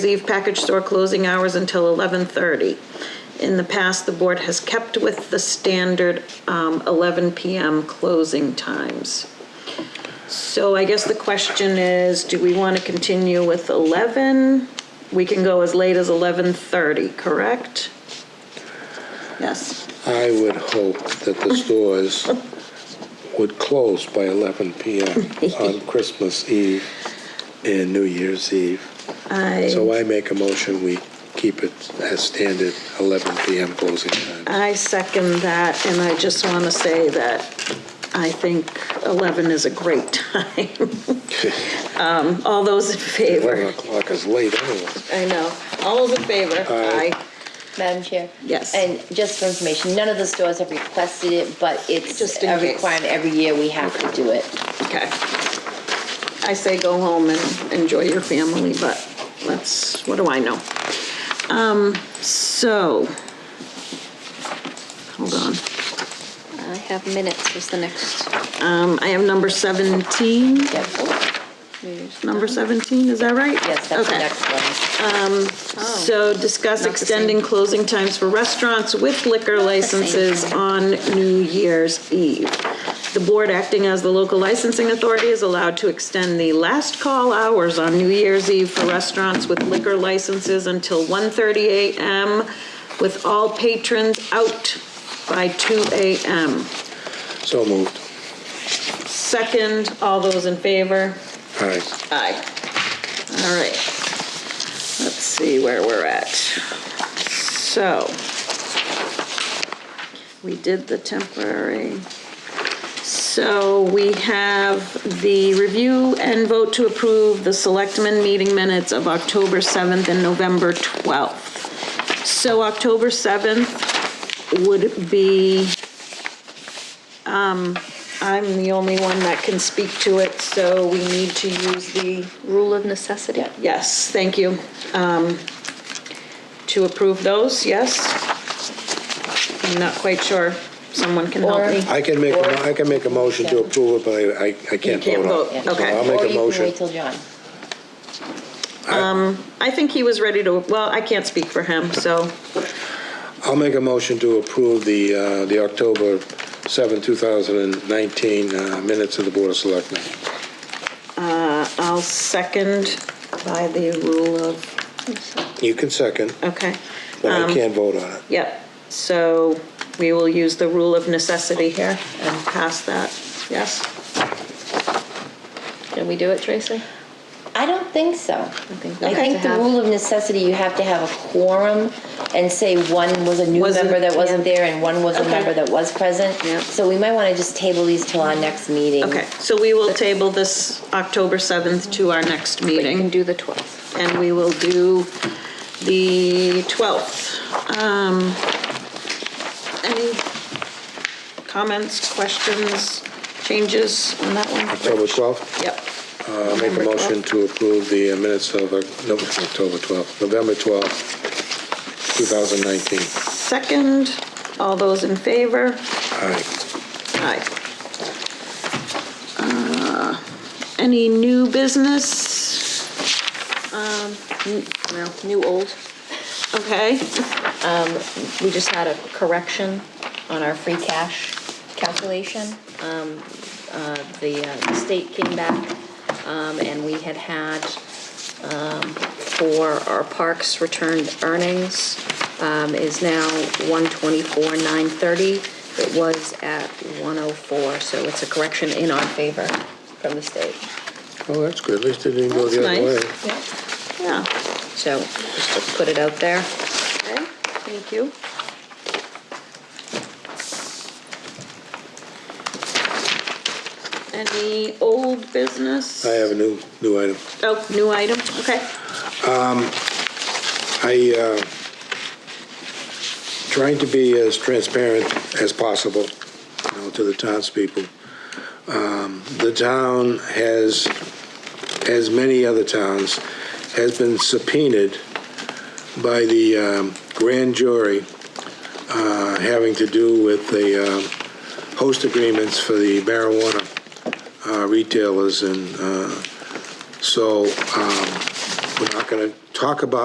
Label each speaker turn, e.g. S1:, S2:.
S1: Eve package store closing hours until 11:30. In the past, the board has kept with the standard um, 11 PM closing times. So I guess the question is, do we want to continue with 11? We can go as late as 11:30, correct? Yes.
S2: I would hope that the stores would close by 11 PM on Christmas Eve and New Year's Eve.
S1: I,
S2: So I make a motion, we keep it as standard 11 PM closing time.
S1: I second that, and I just want to say that I think 11 is a great time. Um, All those in
S2: 11
S1: favor?
S2: o'clock is late anyway.
S1: I know. All those in favor?
S2: Aye.
S3: Madam Chair?
S1: Yes.
S3: And just for information, none of the stores have requested it, but it's
S1: Just in
S3: a
S1: case.
S3: requirement every year we have to do it.
S1: Okay. I say go home and enjoy your family, but that's, what do I know? Um, so, hold on.
S4: I have minutes was the next.
S1: Um, I have number 17,
S3: Yep.
S1: number 17, is that right?
S3: Yes, that's the
S1: Okay.
S3: next one.
S1: So discuss
S4: Not the same.
S1: extending closing times for restaurants with liquor licenses
S4: thing.
S1: on New Year's Eve. The board acting as the local licensing authority is allowed to extend the last call hours on New Year's Eve for restaurants with liquor licenses until 1:30 a.m. with all patrons out by 2 a.m.
S2: So moved.
S1: Second, all those in favor?
S2: All right.
S1: Aye. All right. Let's see where we're at. So, we did the temporary. So we have the review and vote to approve the selectmen meeting minutes of October 7th and November 12th. So October 7th would be, um, I'm the only one that can speak to it, so we need to use the
S4: Rule of necessity.
S1: Yes, thank you. Um, To approve those, yes? I'm not quite sure. Someone can help me.
S2: I can make, a mo- I can make a motion to approve it, but I, I can't
S1: can't vote,
S2: vote on it.
S3: Yeah.
S2: So
S1: okay.
S2: I'll make
S3: Or
S2: a
S3: you can
S2: motion.
S3: wait till John.
S1: I think he was ready to, well, I can't speak for him, so,
S2: I'll make a motion to approve the, uh, the October 7, 2019 uh, minutes of the Board of Selectmen.
S1: uh, I'll second by the rule of,
S2: You can second,
S1: okay.
S2: but I can't vote on it.
S1: Yep, so we will use the rule of necessity here and pass that, yes?
S4: Can we do it, Tracy?
S3: I don't think so.
S4: think we
S3: I
S4: have
S3: think
S4: to
S3: the
S4: have-
S3: rule of necessity, you have to have a quorum and say one was a new
S1: Wasn't-
S3: member that wasn't
S1: yeah.
S3: there and one was a
S1: Okay.
S3: member that was present.
S1: Yeah.
S3: So we might want to just table these till our next meeting.
S1: Okay, so we will table this October 7th to our next
S4: But
S1: meeting.
S4: you can do the 12th.
S1: and we will do the 12th. Um, Any comments, questions, changes on that one?
S2: October 12th,
S1: Yep.
S2: I'll make a
S1: November 12th.
S2: motion to approve the uh, minutes of, uh, no, October 12th, November 12th, 2019.
S1: Second, all those in favor?
S2: All right.
S1: Aye. Uh, Any new business?
S4: No, Mm, new old.
S1: Okay,
S4: We just had a correction on our free cash calculation. Um, uh, The uh, the state came back um, and we had had um, for our parks returned earnings um, is now 124,930. It was at 104, so it's a correction in our favor from the state.
S2: Well, Oh, that's good, at least it didn't go the
S1: That's
S2: other way.
S1: nice. yeah,
S4: So just to put it out there.
S1: okay, thank you. Any old business?
S2: I have a new, new item.
S1: Oh, new item, okay.
S2: I, uh, trying to be as transparent as possible, you know, to the townspeople. Um, The town has, as many other towns, has been subpoenaed by the um, grand jury uh, having to do with the um, host agreements for the marijuana uh, retailers and uh, so um, we're not going to talk about